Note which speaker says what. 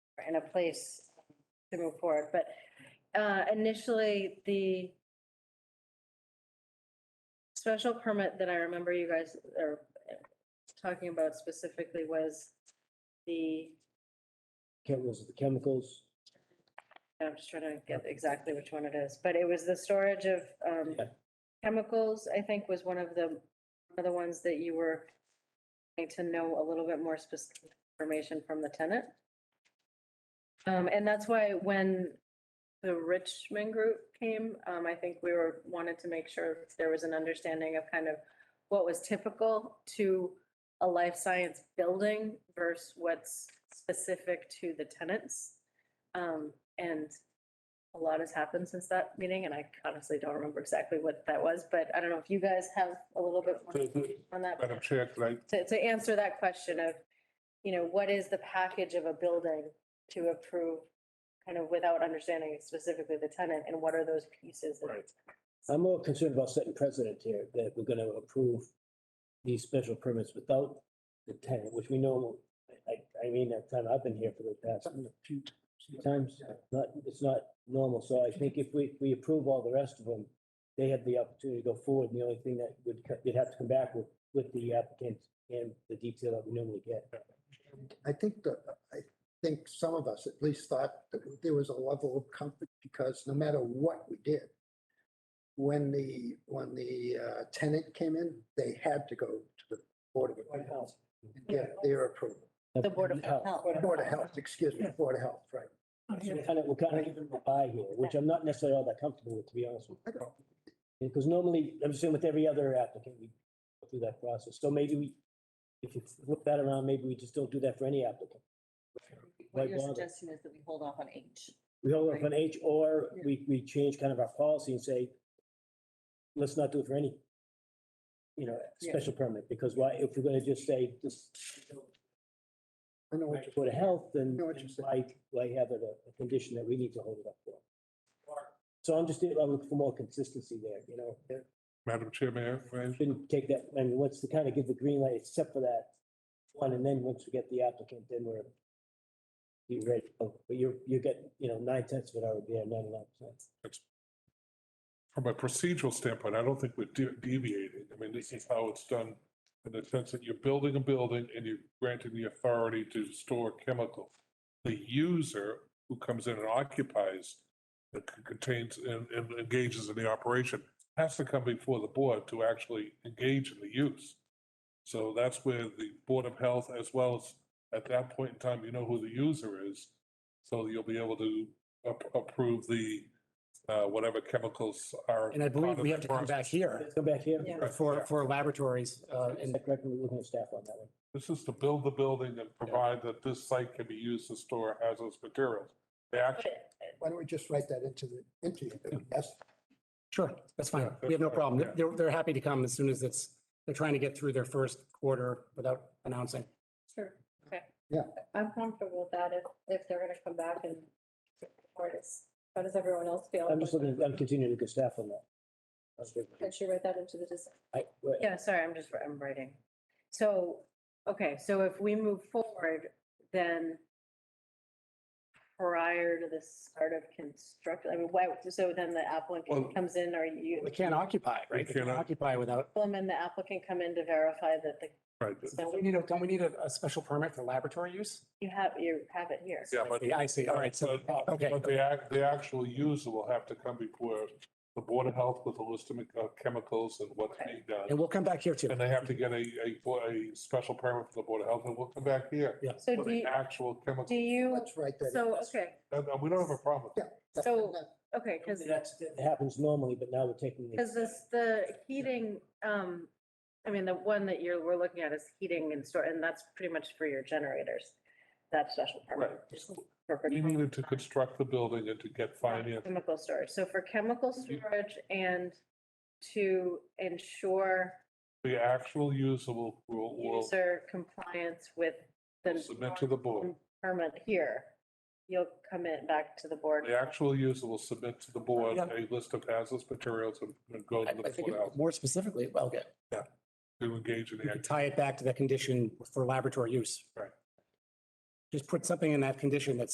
Speaker 1: in a place to move forward. But uh, initially, the special permit that I remember you guys are talking about specifically was the,
Speaker 2: chemicals, the chemicals.
Speaker 1: I'm just trying to get exactly which one it is, but it was the storage of um,
Speaker 2: Yeah.
Speaker 1: chemicals, I think was one of the, one of the ones that you were wanting to know a little bit more specific information from the tenant. Um, and that's why when the Richmond group came, um, I think we were, wanted to make sure there was an understanding of kind of what was typical to a life science building versus what's specific to the tenants. Um, and a lot has happened since that meeting, and I honestly don't remember exactly what that was, but I don't know if you guys have a little bit more on that
Speaker 3: Madam Chair, could I,
Speaker 1: to, to answer that question of, you know, what is the package of a building to approve kind of without understanding specifically the tenant and what are those pieces? that-
Speaker 3: Right.
Speaker 2: I'm more concerned about setting precedent here, that we're gonna approve these special permits without the tenant, which we know, I, I mean, that time I've been here for the past few times, not, it's not normal, so I think if we, we approve all the rest of them, they have the opportunity to go forward, and the only thing that would, co- they'd have to come back with, with the applicant and the detail that we normally get.
Speaker 4: I think that, I think some of us at least thought that there was a level of comfort because no matter what we did, when the, when the uh, tenant came in, they had to go to the Board of Health and get their approval.
Speaker 1: The Board of
Speaker 2: Health.
Speaker 1: Health.
Speaker 4: Board of Health, excuse me, Board of Health, right.
Speaker 2: So We're kind of, we're kind of giving them a buy here, which I'm not necessarily all that comfortable with, to be honest with
Speaker 4: I don't-
Speaker 2: you. Because normally, I'm assuming with every other applicant, we go through that process. So maybe we, if you flip that around, maybe we just don't do that for any applicant. Why
Speaker 5: What you're
Speaker 2: bother?
Speaker 5: suggesting is that we hold off on H.
Speaker 2: We hold up on H or
Speaker 5: Yeah.
Speaker 2: we, we change kind of our policy and say, let's not do it for any, you know,
Speaker 5: Yeah.
Speaker 2: special permit, because why, if we're gonna just say, just
Speaker 4: I know what
Speaker 2: right
Speaker 4: you're
Speaker 2: to go to health, then
Speaker 4: know what
Speaker 2: then
Speaker 4: you're
Speaker 2: why, why have it a, a condition that we need to hold it up for? So I'm just, I'm looking for more consistency there, you know,
Speaker 3: Madam Chair, may I- may I?
Speaker 2: shouldn't take that, I mean, once to kind of give the green light, except for that one, and then once we get the applicant, then we're be ready, to go. but you're, you get, you know, nine tenths of it already, there, ninety-nine percent.
Speaker 3: From a procedural standpoint, I don't think we're de- deviating. I mean, this is how it's done in the sense that you're building a building and you're granting the authority to store chemicals. The user who comes in and occupies, that c- contains and and engages in the operation has to come before the board to actually engage in the use. So that's where the Board of Health, as well as at that point in time, you know who the user is. So you'll be able to ap- approve the, uh, whatever chemicals are.
Speaker 6: And I believe
Speaker 3: part of
Speaker 6: we
Speaker 3: the
Speaker 6: have to come back
Speaker 3: process.
Speaker 6: here
Speaker 2: Let's go back here,
Speaker 5: Yeah.
Speaker 3: Right, yeah.
Speaker 6: for, for laboratories. uh,
Speaker 2: is
Speaker 6: And
Speaker 2: that correct, we're looking at staff on that one?
Speaker 3: This is to build the building and provide that this site can be used to store hazardous materials. They actually,
Speaker 4: Why don't we just write that into the, into the, yes,
Speaker 6: sure, that's fine.
Speaker 3: Yeah,
Speaker 6: We have no
Speaker 3: that's fine,
Speaker 6: problem.
Speaker 3: yeah.
Speaker 6: They're, they're happy to come as soon as it's, they're trying to get through their first quarter without announcing.
Speaker 1: Sure, okay.
Speaker 4: Yeah.
Speaker 1: I'm comfortable with that if, if they're gonna come back and support us. How does everyone else feel?
Speaker 2: I'm just looking, I'm continuing to get staff on that. That's good.
Speaker 7: Make sure you write that into the design.
Speaker 2: I- well,
Speaker 1: Yeah, sorry, I'm just, I'm writing. So, okay, so if we move forward, then prior to the start of construction, I mean, why, so then the
Speaker 3: Well-
Speaker 1: applicant comes in or you,
Speaker 6: They can't occupy, right? They can't
Speaker 3: cannot-
Speaker 6: occupy without,
Speaker 1: them and the applicant come in to verify that the,
Speaker 3: right,
Speaker 6: don't we need a, don't we need a, a special permit for laboratory use?
Speaker 1: you have, you have it here.
Speaker 3: yeah, but.
Speaker 6: I see, all right, so,
Speaker 3: But-
Speaker 6: okay.
Speaker 3: But the, ac- the actual user will have to come before the Board of Health with a list of uh, chemicals and what's being
Speaker 6: And
Speaker 3: done.
Speaker 6: we'll come back here too.
Speaker 3: And they have to get a, a, bo- a special permit from the Board of Health and we'll come back here.
Speaker 1: So
Speaker 3: for
Speaker 1: do,
Speaker 3: the
Speaker 1: you-
Speaker 3: actual chemical,
Speaker 1: do you,
Speaker 4: let's write that. in.
Speaker 1: so, okay,
Speaker 3: and and we don't have a problem. with
Speaker 4: That's-
Speaker 1: so- okay, because
Speaker 2: That's, that happens normally, but now we're taking. the-
Speaker 1: Because this, the heating, um, I mean, the one that you're, we're looking at is heating and store, and that's pretty much for your generators. That special
Speaker 3: that.
Speaker 1: permit. for- for
Speaker 3: Right, we needed to construct the building and to get finance.
Speaker 1: Chemical storage. So for chemical
Speaker 3: You-
Speaker 1: storage and to ensure
Speaker 3: The actual user will, will, will
Speaker 1: user compliance with the
Speaker 3: submit to the board.
Speaker 1: permit here, you'll come in back to the board.
Speaker 3: The actual user will submit to the board
Speaker 6: Yeah.
Speaker 3: a list of hazardous materials and and go
Speaker 6: I
Speaker 3: to the
Speaker 6: I think
Speaker 3: board
Speaker 6: it- more specifically, well, okay,
Speaker 3: to engage in
Speaker 6: we
Speaker 3: the
Speaker 6: could
Speaker 3: act.
Speaker 6: tie it back to the condition for laboratory use.
Speaker 3: Right.
Speaker 6: Just put something in that condition that